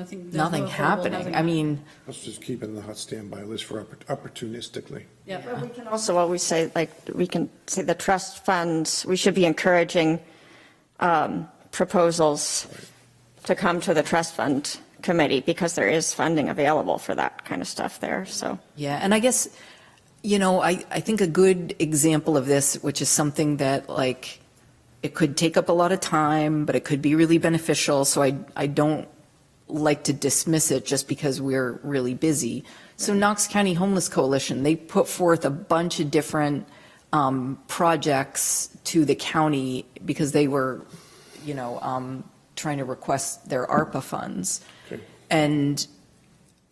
Nothing. there's no nothing affordable happening. housing. I mean, Let's just keep it in the hot standby list for oppor- opportunistically. Yep. But we can also always say, like, we can say the trust funds, we should be encouraging um, proposals to come to the trust fund committee because there is funding available for that kind of stuff there, so. yeah, and I guess, you know, I, I think a good example of this, which is something that like, it could take up a lot of time, but it could be really beneficial. So I, I don't like to dismiss it just because we're really busy. So Knox County Homeless Coalition, they put forth a bunch of different um, projects to the county because they were, you know, um, trying to request their ARPA funds. Okay. And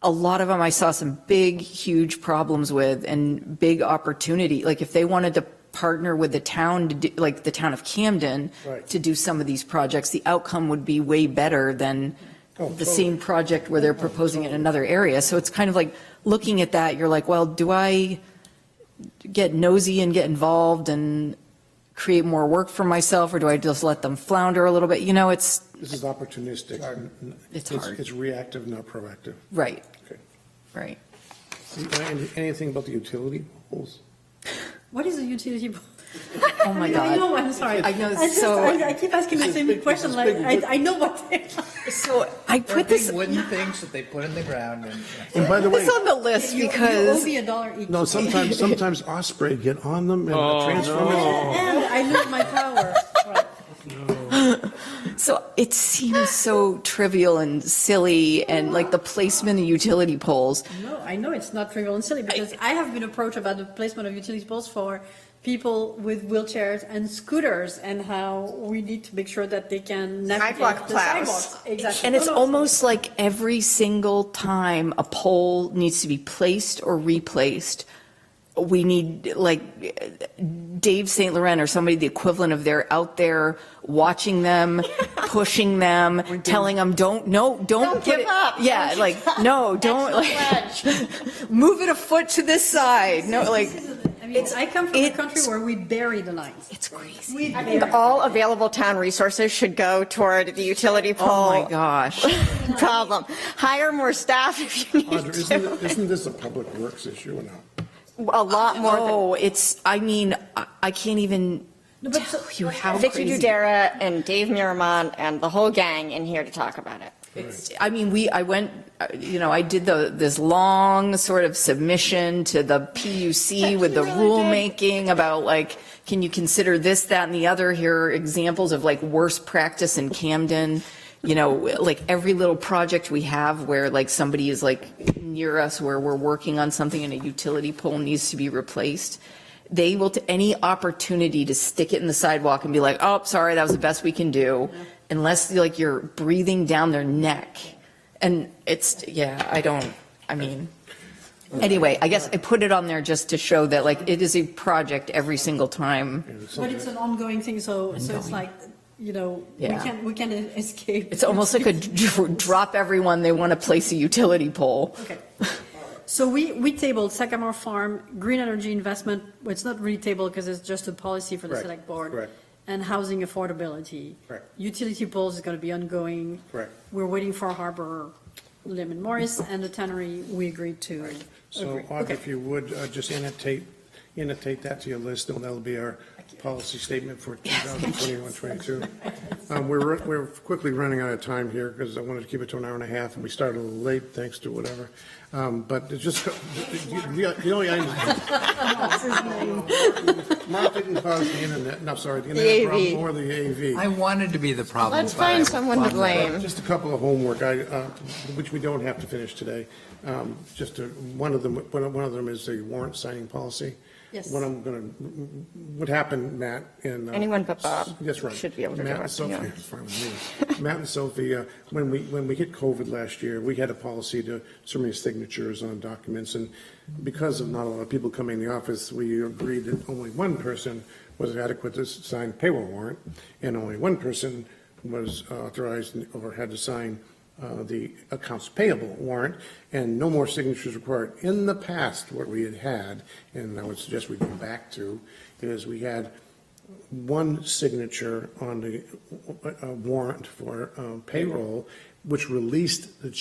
a lot of them I saw some big, huge problems with and big opportunity. Like if they wanted to partner with the town, to do, like the town of Camden, Right. to do some of these projects, the outcome would be way better than Oh, the totally. Oh, same project where they're proposing it in another area. So it's kind of like looking at that, you're like, well, do I get nosy and get involved and create more work for myself, or do I just let them flounder a little bit? You know, it's, This is opportunistic. N- n- It's hard. It's reactive, not proactive. right, Okay. right. Any- Anything about the utility poles? What is a utility pole? Oh my I know, God. I'm sorry. I know, I just- so- I I keep asking the same question, like, I, I know what. they are. So I They're put this, big wooden things that they put in the ground and. And by the way, this on the list You- you because. owe me a dollar each. no, sometimes, sometimes Osprey get on them and the transformers. And I lose my power. Right. So it seems so trivial and silly and like the placement of utility poles. No, I know it's not trivial and silly because I have been approached about the placement of utility poles for people with wheelchairs and scooters and how we need to make sure that they can navigate Sidewalk the plows. sidewalks. Exactly. And it's No, no. almost like every single time a pole needs to be placed or replaced, we need like Dave St. Laurent or somebody, the equivalent of they're out there watching them, pushing them, telling them, don't, no, don't. Don't put give it-" up. Yeah, like, no, don't, That's the like, move it a foot to this side. No, like, I mean, I come from a it's- country where we bury the lines. it's crazy. We I bury. think all available town resources should go toward the utility Oh pole my gosh. problem. Hire more staff if you Audra, need to. Oh, isn't, isn't this a public works issue or not? A lot more than, Oh, it's, I mean, I- I can't even No, but tell so- you how Vicky crazy. Dudera and Dave Miramon and the whole gang in here to talk about it. It's- I mean, we, I went, uh, you know, I did the, this long sort of submission to the PUC with the rulemaking about like, can you consider this, that, and the other? Here are examples of like worst practice in Camden. You know, like every little project we have where like somebody is like near us where we're working on something and a utility pole needs to be replaced. They will, to any opportunity to stick it in the sidewalk and be like, oh, sorry, that was the best we can do, unless like you're breathing down their neck. And it's, yeah, I don't, I mean, anyway, I guess I put it on there just to show that like it is a project every single time. But it's an ongoing thing, so, so it's like, you know, we Yeah. can't, we can't escape. It's almost like a dr- drop everyone, they want to place a utility pole. Okay. So we, we tabled Sagamore Farm, green energy investment, well, it's not really tabled because it's just a policy for the Correct, select board. correct. And housing affordability. Correct. Utility poles is going to be ongoing. Correct. We're waiting for Harbor Lemon Morris and the tannery, we agreed to. So agree. Audra, Okay. if you would, uh, just annotate, annotate that to your list, and that'll be our policy statement for 2021, 22. Um, We're, we're quickly running out of time here, because I wanted to keep it to an hour and a half, and we started a little late, thanks to whatever. Um, But it's just, the the only item. Mark didn't cause the internet, no, sorry, the internet problem, AV. or the AV. I wanted to be the problem. Let's find but I- someone to blame. Just a couple of homework, I, uh, which we don't have to finish today. Um, Just to- one of them, one of one of them is the warrant signing policy. Yes. What I'm going to, what happened, Matt and. uh, Anyone but Bob That's right. should be able to do Matt and it, Sophie, yeah. it's fine with me. Matt and Sophie, uh, when we, when we hit COVID last year, we had a policy to so many signatures on documents. And because of not a lot of people coming in the office, we agreed that only one person was adequate to sign payroll warrant. And only one person was authorized or had to sign uh, the accounts payable warrant. And no more signatures required. In the past, what we had had, and I would suggest we go back to, is we had one signature on the uh, uh, warrant for um, payroll, which released the